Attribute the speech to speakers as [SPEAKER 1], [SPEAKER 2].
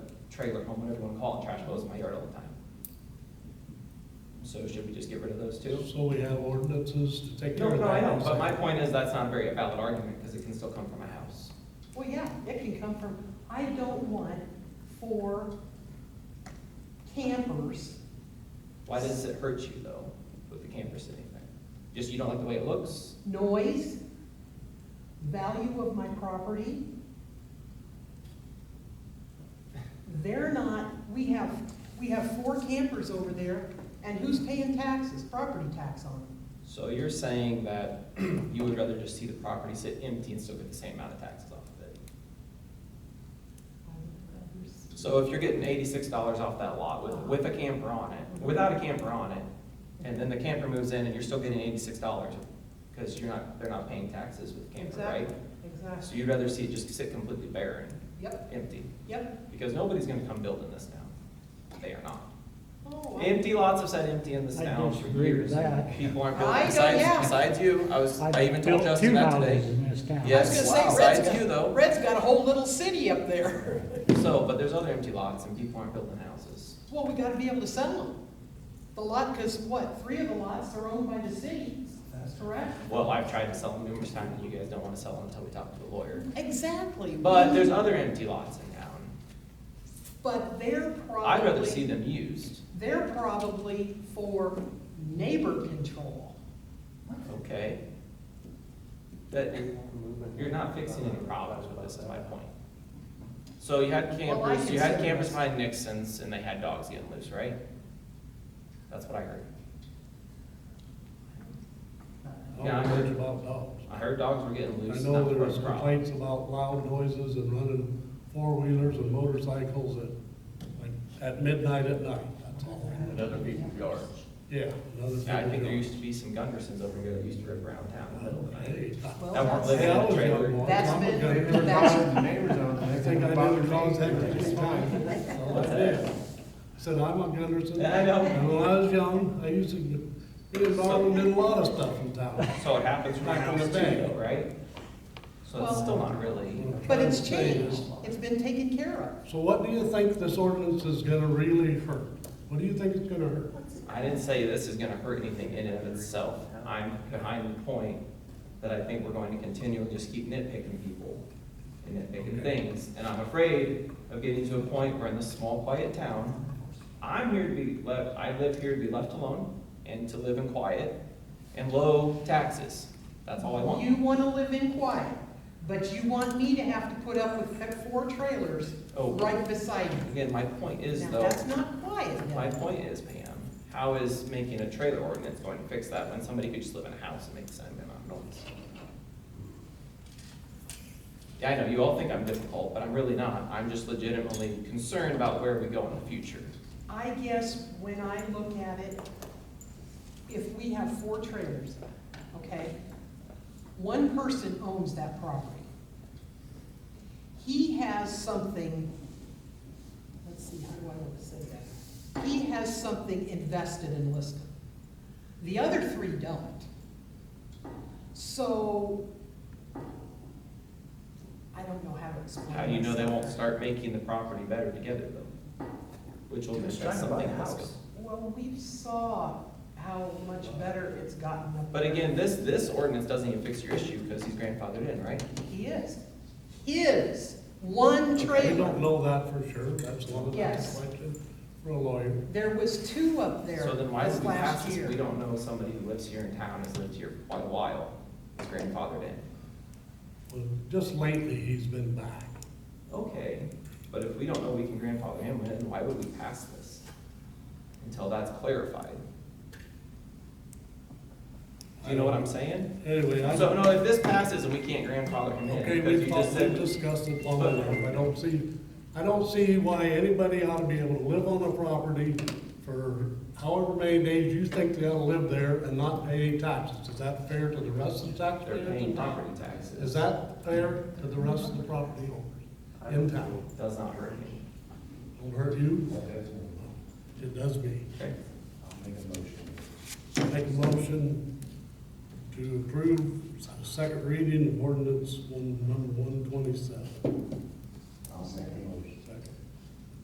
[SPEAKER 1] trailer home, whatever you wanna call it, trash goes in my yard all the time. So should we just get rid of those two?
[SPEAKER 2] So we have ordinances to take care
[SPEAKER 1] No,
[SPEAKER 2] of that.
[SPEAKER 1] no, I know, but my point is that's not a very valid argument, because it can still come from a house.
[SPEAKER 3] Well, yeah, it can come from, I don't want four campers.
[SPEAKER 1] Why does it hurt you though, with the camper sitting there? Just you don't like the way it looks?
[SPEAKER 3] Noise, value of my property. They're not, we have, we have four campers over there, and who's paying taxes, property tax on them?
[SPEAKER 1] So you're saying that you would rather just see the property sit empty and still get the same amount of taxes off of it? So if you're getting eighty-six dollars off that lot with, with a camper on it, without a camper on it, and then the camper moves in and you're still getting eighty-six dollars, because you're not, they're not paying taxes with the camper, right?
[SPEAKER 3] Exactly, exactly.
[SPEAKER 1] So you'd rather see it just sit completely barren,
[SPEAKER 3] Yep,
[SPEAKER 1] empty,
[SPEAKER 3] yep.
[SPEAKER 1] because nobody's gonna come building this now. They are not.
[SPEAKER 3] Oh, I-
[SPEAKER 1] Empty lots have sat empty in this
[SPEAKER 4] I
[SPEAKER 1] town for
[SPEAKER 4] disagree with
[SPEAKER 1] years.
[SPEAKER 4] that.
[SPEAKER 1] People aren't
[SPEAKER 3] I
[SPEAKER 1] building
[SPEAKER 3] know,
[SPEAKER 1] besides,
[SPEAKER 3] yeah.
[SPEAKER 1] besides you. I was,
[SPEAKER 4] I've
[SPEAKER 1] I even told
[SPEAKER 4] built
[SPEAKER 1] Justin
[SPEAKER 4] two
[SPEAKER 1] that today.
[SPEAKER 4] houses in this town.
[SPEAKER 3] I was
[SPEAKER 1] Yes,
[SPEAKER 3] gonna say,
[SPEAKER 1] wow,
[SPEAKER 3] Red's
[SPEAKER 1] besides
[SPEAKER 3] got-
[SPEAKER 1] you though.
[SPEAKER 3] Red's got a whole little city up there.
[SPEAKER 1] So, but there's other empty lots and people aren't building houses.
[SPEAKER 3] Well, we gotta be able to sell them. The lot, because what, three of the lots are owned by the city, correct?
[SPEAKER 1] Well, I've tried to sell them numerous times and you guys don't wanna sell them until we talk to a lawyer.
[SPEAKER 3] Exactly.
[SPEAKER 1] But there's other empty lots in town.
[SPEAKER 3] But they're probably.
[SPEAKER 1] I'd rather see them used,
[SPEAKER 3] They're probably for neighbor control.
[SPEAKER 1] okay? That, you're not fixing any problems with this, is my point. So you had
[SPEAKER 3] Well, I
[SPEAKER 1] campers, you had
[SPEAKER 3] consider
[SPEAKER 1] campers
[SPEAKER 3] this-
[SPEAKER 1] behind Nixon's and they had dogs getting loose, right? That's what I heard.
[SPEAKER 2] I don't worry about dogs.
[SPEAKER 1] I heard dogs were getting
[SPEAKER 2] I
[SPEAKER 1] loose.
[SPEAKER 2] know
[SPEAKER 1] and that
[SPEAKER 2] there was
[SPEAKER 1] a problem.
[SPEAKER 2] complaints about loud noises and running four-wheelers and motorcycles at, like, at midnight at night, that's all.
[SPEAKER 5] Another people's yards.
[SPEAKER 2] Yeah. another
[SPEAKER 1] Yeah, I think
[SPEAKER 2] thing
[SPEAKER 1] there
[SPEAKER 2] to
[SPEAKER 1] used to be some Gundersons over here that used to rip around town in the middle of the night.
[SPEAKER 2] Hey, I-
[SPEAKER 3] Well,
[SPEAKER 1] That weren't living
[SPEAKER 2] Hey,
[SPEAKER 1] in
[SPEAKER 2] I
[SPEAKER 1] a
[SPEAKER 2] was
[SPEAKER 1] trailer.
[SPEAKER 2] young once.
[SPEAKER 3] That's
[SPEAKER 2] I'm a
[SPEAKER 3] been-
[SPEAKER 2] gun-
[SPEAKER 5] They were
[SPEAKER 3] That's-
[SPEAKER 5] calling the neighbors on it.
[SPEAKER 2] I
[SPEAKER 5] They
[SPEAKER 2] think I
[SPEAKER 5] were
[SPEAKER 2] never
[SPEAKER 5] bothering
[SPEAKER 2] contacted
[SPEAKER 5] me.
[SPEAKER 2] this time.
[SPEAKER 1] What's that?
[SPEAKER 2] Said, I'm a Gunderson.
[SPEAKER 1] I know.
[SPEAKER 2] And when I was young, I used to get get involved in a lot of stuff in town.
[SPEAKER 1] So it happens from the
[SPEAKER 2] Back on
[SPEAKER 1] house
[SPEAKER 2] the
[SPEAKER 1] too,
[SPEAKER 2] bank.
[SPEAKER 1] though, right? So it's
[SPEAKER 3] Well-
[SPEAKER 1] still not really,
[SPEAKER 3] But it's changed. It's been taken care of.
[SPEAKER 2] So what do you think this ordinance is gonna really hurt? What do you think it's gonna hurt?
[SPEAKER 1] I didn't say this is gonna hurt anything in and of itself. I'm behind the point that I think we're going to continue and just keep nitpicking people and nitpicking
[SPEAKER 2] Okay.
[SPEAKER 1] things. And I'm afraid of getting to a point where in this small, quiet town, I'm here to be left, I live here to be left alone and to live in quiet and low taxes. That's all I want.
[SPEAKER 3] You wanna live in quiet, but you want me to have to put up with four trailers
[SPEAKER 1] Oh.
[SPEAKER 3] right beside you.
[SPEAKER 1] Again, my point is
[SPEAKER 3] Now,
[SPEAKER 1] though,
[SPEAKER 3] that's not quiet, then.
[SPEAKER 1] my point is, Pam, how is making a trailer ordinance going to fix that when somebody could just live in a house and make the same amount of noise? Yeah, I know, you all think I'm difficult, but I'm really not. I'm just legitimately concerned about where we go in the future.
[SPEAKER 3] I guess when I look at it, if we have four trailers, okay? One person owns that property. He has something, let's see, how do I want to say that? He has something invested in Liscum. The other three don't. So, I don't know how to explain
[SPEAKER 1] How do you know they
[SPEAKER 3] myself.
[SPEAKER 1] won't start making the property better together though? Which will
[SPEAKER 5] Just
[SPEAKER 1] affect
[SPEAKER 5] trying to buy
[SPEAKER 1] something
[SPEAKER 5] a
[SPEAKER 1] else.
[SPEAKER 5] house.
[SPEAKER 3] Well, we saw how much better it's gotten up.
[SPEAKER 1] But again, this, this ordinance doesn't even fix your issue because he's grandfathered in, right?
[SPEAKER 3] He is. His one
[SPEAKER 2] We don't
[SPEAKER 3] trailer.
[SPEAKER 2] know that for sure, that's one of the
[SPEAKER 3] Yes.
[SPEAKER 2] questions for a lawyer.
[SPEAKER 3] There was two up there
[SPEAKER 1] So then why does
[SPEAKER 3] this
[SPEAKER 1] we
[SPEAKER 3] last
[SPEAKER 1] pass
[SPEAKER 3] year.
[SPEAKER 1] this? We don't know somebody who lives here in town, has lived here for quite a while, is grandfathered in.
[SPEAKER 2] Well, Just lately, he's been back.
[SPEAKER 1] Okay, but if we don't know we can grandfather him in, why would we pass this? Until that's clarified. Do you know what I'm saying?
[SPEAKER 2] Anyway, I,
[SPEAKER 1] So, no, if this passes and we can't grandfather him in,
[SPEAKER 2] okay,
[SPEAKER 1] because
[SPEAKER 2] we've
[SPEAKER 1] you just
[SPEAKER 2] talked, we've
[SPEAKER 1] said,
[SPEAKER 2] discussed it long enough. I don't see, I don't see why anybody ought to be able to live on a property for however many days you think they ought to live there and not pay any taxes. Is that fair to the rest of the
[SPEAKER 1] they're
[SPEAKER 2] taxpayers?
[SPEAKER 1] paying property
[SPEAKER 2] Is
[SPEAKER 1] taxes,
[SPEAKER 2] that fair to the rest of the property owners in town?
[SPEAKER 1] does not hurt me,
[SPEAKER 2] Won't hurt you,
[SPEAKER 5] I'll
[SPEAKER 2] it does me.
[SPEAKER 1] okay?
[SPEAKER 5] make a motion.
[SPEAKER 2] Make a motion to approve second reading of ordinance one, number one twenty-seven.